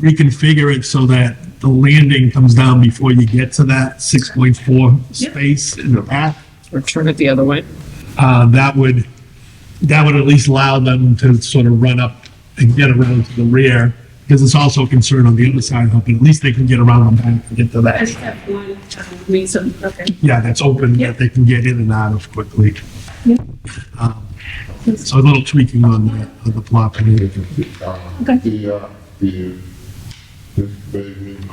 reconfigure it so that the landing comes down before you get to that six point four space in the path, or turn it the other way. uh, that would, that would at least allow them to sort of run up and get around to the rear, because it's also a concern on the other side, but at least they can get around the back and get to I that. just have one um, reason, okay. Yeah, that's open, Yeah. that they can get in and out of quickly. Yeah. Um, So a little tweaking on the, on the plot. plan. Okay. The, uh, the, this pavement,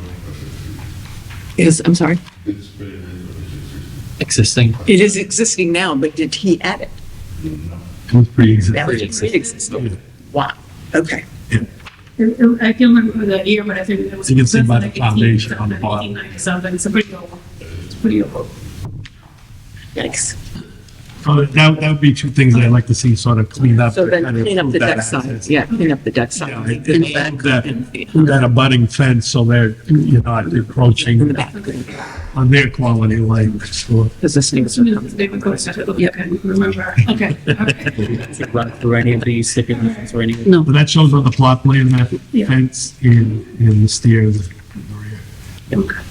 Is, I'm sorry, this pavement, existing. it is existing now, but did he add it? It was pre-existing. That was pre-existing. Wow, okay. I- I I can remember the year, but I think it was. You can see by the like 18, foundation on the something, bottom. 18, Something, it's a pretty old, it's pretty old. Yikes. So That, that would be two things I'd like to see sort of cleaned up. So to then kind of clean up the improve that deck side, access. yeah, clean up the deck Yeah, side. it- In the it's back that- and- Through that abutting fence, so they're, you're not In the encroaching back, on their quality of life. So because this needs So to it come. was David Costa, I don't Yep. remember, okay, okay. Should Run through any of these stipulations or anything. No, But that shows on the plot plan, that Yeah. fence and, and the stairs. in the rear.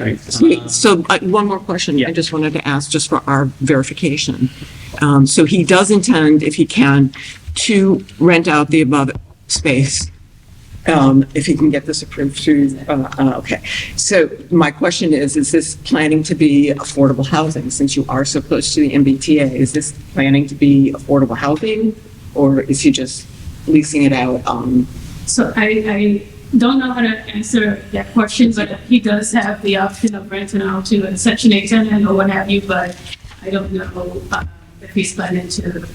Right. Sweet. So uh, one more question I Yeah. just wanted to ask, just for our verification. Um, So he does intend, if he can, to rent out the above space, um, if he can get this approved through, uh, uh, okay. So my question is, is this planning to be affordable housing? Since you are so close to the MBTA, is this planning to be affordable housing? Or is he just leasing it out? um, So I, I don't know how to answer that question, but he does have the option of renting out to a section eight tenant or what have you, but I don't know uh, if he's planning to.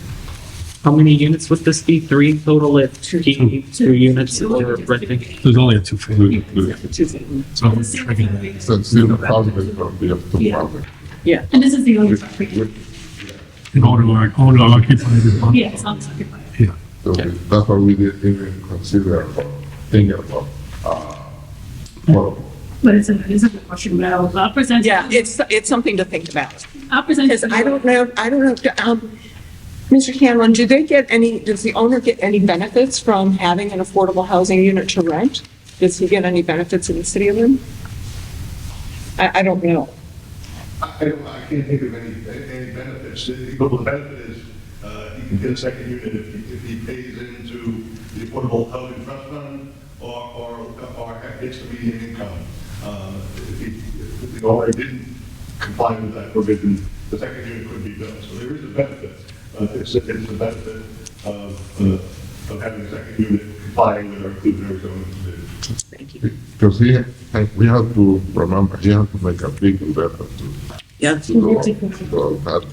How many units would this be? Three total if two, two units that they're renting? There's only a two foot, to- so I'm tricking that. so it's still probably gonna be up to Yeah. problem. Yeah, And this is the only property, In order to own or occupy the lot. yeah, it's unoccupied. Yeah. So we- that's why we didn't even consider about, thinking about, uh, well, But it's a, it's a good question, but I'll, I'll present. yeah, it's, it's something to think about. I'll present. Because I don't know, I don't know, um, Mr. Hanlon, do they get any, does the owner get any benefits from having an affordable housing unit to rent? Does he get any benefits in the city of Lynn? I, I don't know. I don't, I can't think of any, any benefits. The the benefit is, uh, he can get a second unit if he, if he pays into the Affordable Housing Trust Fund or, or, or gets the median income. Uh, If he, if the owner didn't comply with that provision, the second unit could be built. So there is a benefit. Uh, It's, a- it's a benefit of, uh, of having a second unit complying with our inclusionary zoning provision. Thank you. because he, we have to remember, he has to make a big investment to, Yeah, to go, to go, that,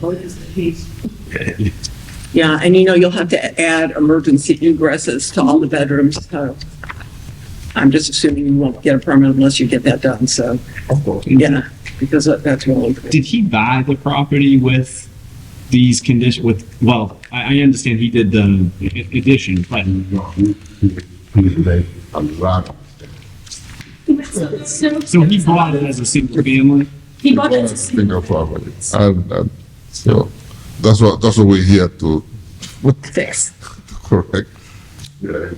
yeah, and you know, you'll have to add emergency egresses to all the bedrooms, so. I'm just assuming you won't get a permit unless you get that done, so, of course. yeah, because that- that's really. Did he buy the property with these condition, with, well, I, I understand he did the addition, but No, we, we, we made a lot of mistakes. So he bought it as a single family? He bought it. Single property, and, and, so, that's what, that's what we're here to Fix. correct. Yeah.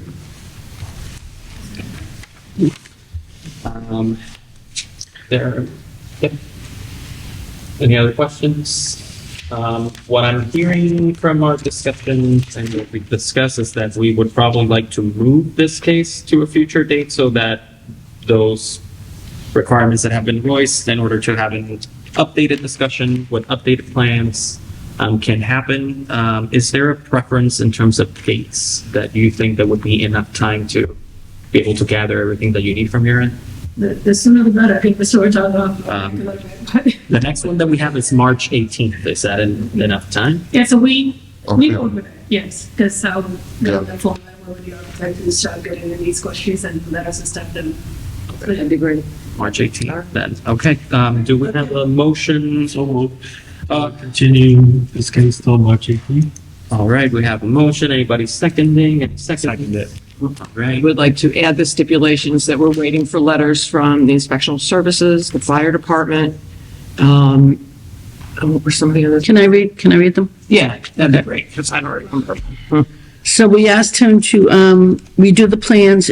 Um, there, yep. Any other questions? Um, what I'm hearing from our discussions and what we discussed is that we would probably like to move this case to a future date so that those requirements that have been voiced in order to have an updated discussion with updated plans um, can happen. Um, is there a preference in terms of dates that you think that would be enough time to be able to gather everything that you need from your end? The, the sooner the better, I think the sooner it's all Um, The next one that we have is March 18th. Is that en- enough time? Yeah, so we, we oh, Okay. go with it, yes, because, um, Yeah. the format where the architect will start getting in these questions and let us start them. That'd be great. March 18th then. Okay, um, do we have a motion? So Uh, Continue this case till March eighteenth. All right, we have a motion. Anybody seconding? Any seconding? All right. would like to add the stipulations that we're waiting for letters from the inspectional services, the fire department, um, and what were some of the others? Can I read, can I read them? Yeah, that'd be great, because I don't remember. So we asked him to, um, redo the plans